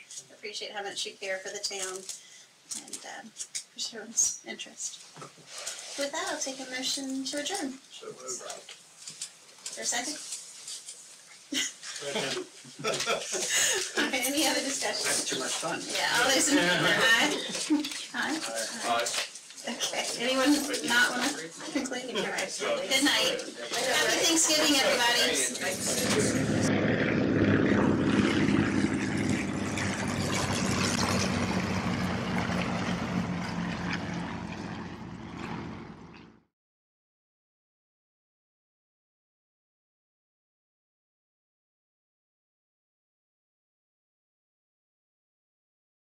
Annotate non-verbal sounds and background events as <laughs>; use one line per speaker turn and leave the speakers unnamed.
appreciate how much you care for the town and um, for everyone's interest. With that, I'll take a motion to adjourn.
So moved.
Is there a second? Okay, any other discussion?
That's too much fun.
Yeah, all those in favor, aye? Aye? Okay, anyone not <laughs> want to conclude? All right. Good night. Happy Thanksgiving, everybody.